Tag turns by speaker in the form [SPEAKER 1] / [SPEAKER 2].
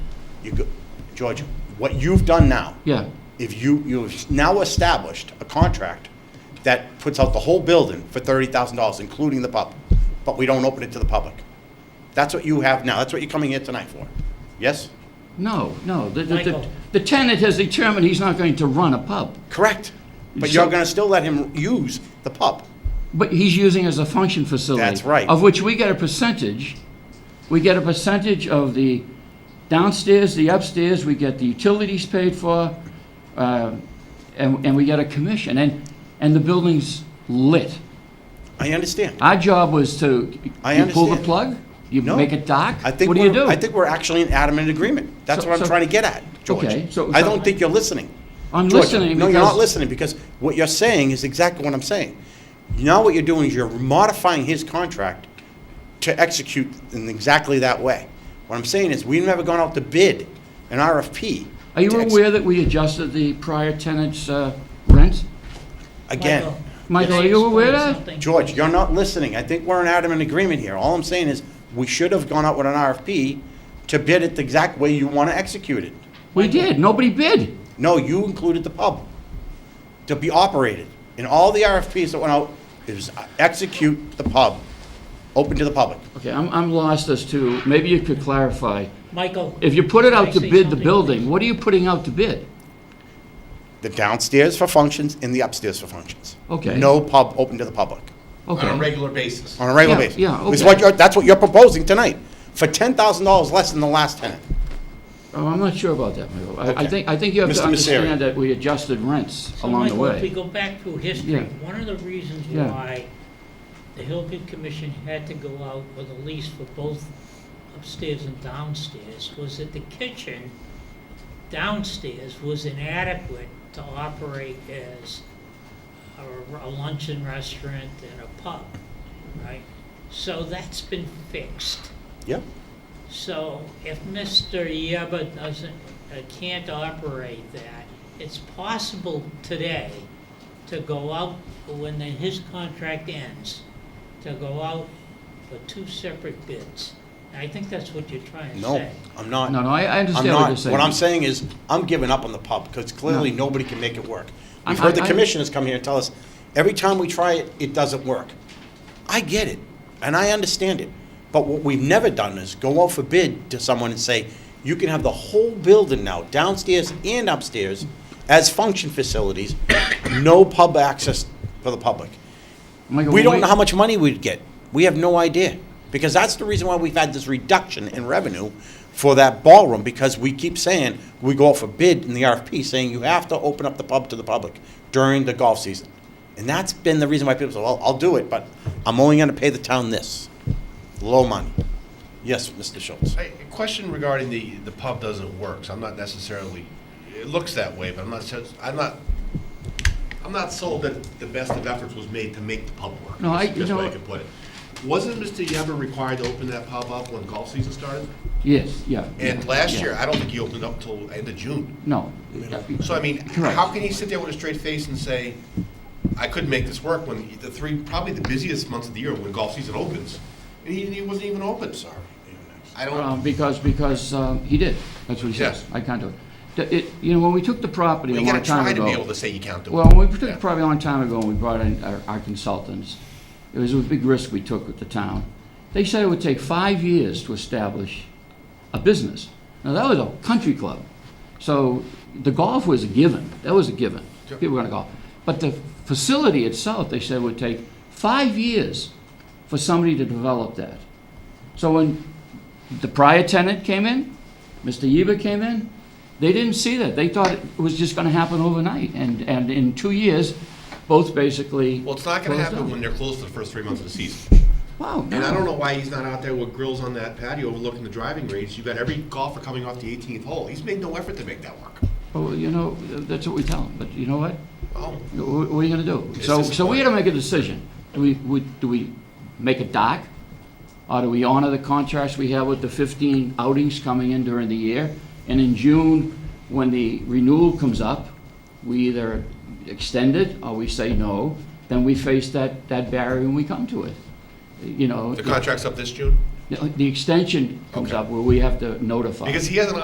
[SPEAKER 1] you go, George, what you've done now,
[SPEAKER 2] Yeah,
[SPEAKER 1] if you, you've now established a contract that puts out the whole building for thirty thousand dollars, including the pub, but we don't open it to the public. That's what you have now, that's what you're coming here tonight for, yes?
[SPEAKER 2] no, no. The- the- The
[SPEAKER 3] Michael.
[SPEAKER 2] the tenant has determined he's not going to run a pub,
[SPEAKER 1] Correct, but you're
[SPEAKER 2] So-
[SPEAKER 1] gonna still let him use the pub,
[SPEAKER 2] but he's using it as a function facility.
[SPEAKER 1] That's right.
[SPEAKER 2] Of which we get a percentage. We get a percentage of the downstairs, the upstairs, we get the utilities paid for, uh, and and we get a commission, and and the building's lit.
[SPEAKER 1] I understand.
[SPEAKER 2] Our job was to,
[SPEAKER 1] I
[SPEAKER 2] you pull the
[SPEAKER 1] understand.
[SPEAKER 2] plug? You
[SPEAKER 1] No.
[SPEAKER 2] make it dark?
[SPEAKER 1] I think
[SPEAKER 2] What do you
[SPEAKER 1] we're-
[SPEAKER 2] do?
[SPEAKER 1] I think we're actually in adamant agreement. That's
[SPEAKER 2] So-
[SPEAKER 1] what I'm
[SPEAKER 2] so-
[SPEAKER 1] trying to get at, George.
[SPEAKER 2] Okay, so-
[SPEAKER 1] I
[SPEAKER 2] so-
[SPEAKER 1] don't think you're listening.
[SPEAKER 2] I'm
[SPEAKER 1] George,
[SPEAKER 2] listening
[SPEAKER 1] No, you're not
[SPEAKER 2] because-
[SPEAKER 1] listening because what you're saying is exactly what I'm saying. Now what you're doing is you're modifying his contract to execute in exactly that way. What I'm saying is we've never gone out to bid an RFP.
[SPEAKER 2] Are you
[SPEAKER 1] to ex-
[SPEAKER 2] aware that we adjusted the prior tenant's uh, rent?
[SPEAKER 1] Again,
[SPEAKER 3] Michael,
[SPEAKER 2] Michael,
[SPEAKER 3] can I
[SPEAKER 2] are you aware
[SPEAKER 3] explain
[SPEAKER 2] of that?
[SPEAKER 3] something?
[SPEAKER 1] George, you're not listening. I think we're in adamant agreement here. All I'm saying is we should have gone out with an RFP to bid it the exact way you want to execute it.
[SPEAKER 2] We did, nobody bid.
[SPEAKER 1] No, you included the pub to be operated. In all the RFPs that went out, it was uh, execute the pub, open to the public.
[SPEAKER 2] Okay, I'm, I'm lost as to, maybe you could clarify.
[SPEAKER 3] Michael.
[SPEAKER 2] If you put it out to
[SPEAKER 3] Can I say
[SPEAKER 2] bid the
[SPEAKER 3] something,
[SPEAKER 2] building,
[SPEAKER 3] please?
[SPEAKER 2] what are you putting out to bid?
[SPEAKER 1] The downstairs for functions and the upstairs for functions.
[SPEAKER 2] Okay.
[SPEAKER 1] No pub open to the public
[SPEAKER 2] Okay.
[SPEAKER 4] on a regular basis.
[SPEAKER 1] on a regular
[SPEAKER 2] Yeah,
[SPEAKER 1] basis.
[SPEAKER 2] yeah,
[SPEAKER 1] It's
[SPEAKER 2] okay.
[SPEAKER 1] what you're, that's what you're proposing tonight, for ten thousand dollars less than the last tenant.
[SPEAKER 2] Oh, I'm not sure about that, Michael. I- I
[SPEAKER 1] Okay.
[SPEAKER 2] think, I think you have to
[SPEAKER 1] Mr. Misery.
[SPEAKER 2] understand that we adjusted rents
[SPEAKER 3] So,
[SPEAKER 2] along the
[SPEAKER 3] Michael, If we
[SPEAKER 2] way.
[SPEAKER 3] go back through
[SPEAKER 2] Yeah.
[SPEAKER 3] history, one of the reasons
[SPEAKER 2] Yeah.
[SPEAKER 3] why the Hillview Commission had to go out with a lease for both upstairs and downstairs was that the kitchen downstairs was inadequate to operate as a- a luncheon restaurant and a pub, right? So that's been fixed.
[SPEAKER 1] Yeah,
[SPEAKER 3] So if Mr. Yeba doesn't, uh, can't operate that, it's possible today to go out, when the- his contract ends, to go out for two separate bids. And I think that's what you're trying to
[SPEAKER 1] no,
[SPEAKER 3] say.
[SPEAKER 1] I'm not.
[SPEAKER 2] No, no, I, I
[SPEAKER 1] I'm
[SPEAKER 2] understand what you're
[SPEAKER 1] not,
[SPEAKER 2] saying.
[SPEAKER 1] what I'm saying is, I'm giving up on the pub, because clearly nobody can make it work. We've
[SPEAKER 2] I-
[SPEAKER 1] heard the
[SPEAKER 2] I- I-
[SPEAKER 1] commissioners come here and tell us, every time we try it, it doesn't work. I get it, and I understand it, but what we've never done is go out for bid to someone and say, you can have the whole building now, downstairs and upstairs, as function facilities, no pub access for the public.
[SPEAKER 2] Michael,
[SPEAKER 1] We
[SPEAKER 2] when
[SPEAKER 1] don't know how much money we'd get. We have no idea. Because that's the reason why we've had this reduction in revenue for that ballroom, because we keep saying, we go out for bid in the RFP, saying you have to open up the pub to the public during the golf season. And that's been the reason why people say, well, I'll do it, but I'm only gonna pay the town this. Low money. Yes, Mr. Schultz.
[SPEAKER 4] I- A question regarding the, the pub doesn't work, so I'm not necessarily, it looks that way, but I'm not, so- I'm not, I'm not sold that the best of efforts was made to make the pub work.
[SPEAKER 2] No, I-
[SPEAKER 4] is the
[SPEAKER 2] you
[SPEAKER 4] best way
[SPEAKER 2] know-
[SPEAKER 4] I could put it. Wasn't Mr. Yever required to open that pub up when golf season started?
[SPEAKER 2] Yes, yeah.
[SPEAKER 4] And last year, I don't think he opened up till end of June.
[SPEAKER 2] No.
[SPEAKER 4] So I mean,
[SPEAKER 2] Correct.
[SPEAKER 4] how can he sit there with a straight face and say, I couldn't make this work when the three, probably the busiest months of the year when golf season opens, and he, he wasn't even open, sorry.
[SPEAKER 2] Uh,
[SPEAKER 4] I don't,
[SPEAKER 2] Because, because um, he did, that's what he says.
[SPEAKER 4] Yes.
[SPEAKER 2] I can't do it. The- it. You know, when we took the property a
[SPEAKER 4] you
[SPEAKER 2] long
[SPEAKER 4] gotta
[SPEAKER 2] time
[SPEAKER 4] try
[SPEAKER 2] ago.
[SPEAKER 4] to be able to say you can't do it.
[SPEAKER 2] Well, when we took
[SPEAKER 4] Yeah.
[SPEAKER 2] it probably a long time ago, and we brought in our our consultants, it was a big risk we took with the town. They said it would take five years to establish a business. Now, that was a country club, so the golf was a given, that was a given.
[SPEAKER 4] Sure.
[SPEAKER 2] People were gonna golf. But the facility itself, they said, would take five years for somebody to develop that. So when the prior tenant came in, Mr. Yever came in, they didn't see that. They thought it was just gonna happen overnight, and, and in two years, both basically.
[SPEAKER 4] Well, it's not gonna
[SPEAKER 2] closed
[SPEAKER 4] happen
[SPEAKER 2] down.
[SPEAKER 4] when they're closed for the first three months of the season.
[SPEAKER 2] Wow,
[SPEAKER 4] And I don't
[SPEAKER 2] no.
[SPEAKER 4] know why he's not out there with grills on that patio overlooking the driving range. You've got every golfer coming off the eighteenth hole. He's made no effort to make that work.
[SPEAKER 2] Well, you know, that's what we tell them, but you know what?
[SPEAKER 4] Oh,
[SPEAKER 2] Wh- What are you gonna do? So, so we had to make a decision. Do we, we- do we make it dark? Or do we honor the contracts we have with the 15 outings coming in during the year? And in June, when the renewal comes up, we either extend it or we say no, then we face that, that barrier when we come to it. You know,
[SPEAKER 4] the contract's up this June?
[SPEAKER 2] the the extension comes
[SPEAKER 4] Okay.
[SPEAKER 2] up where we have to notify.
[SPEAKER 4] Because he hasn't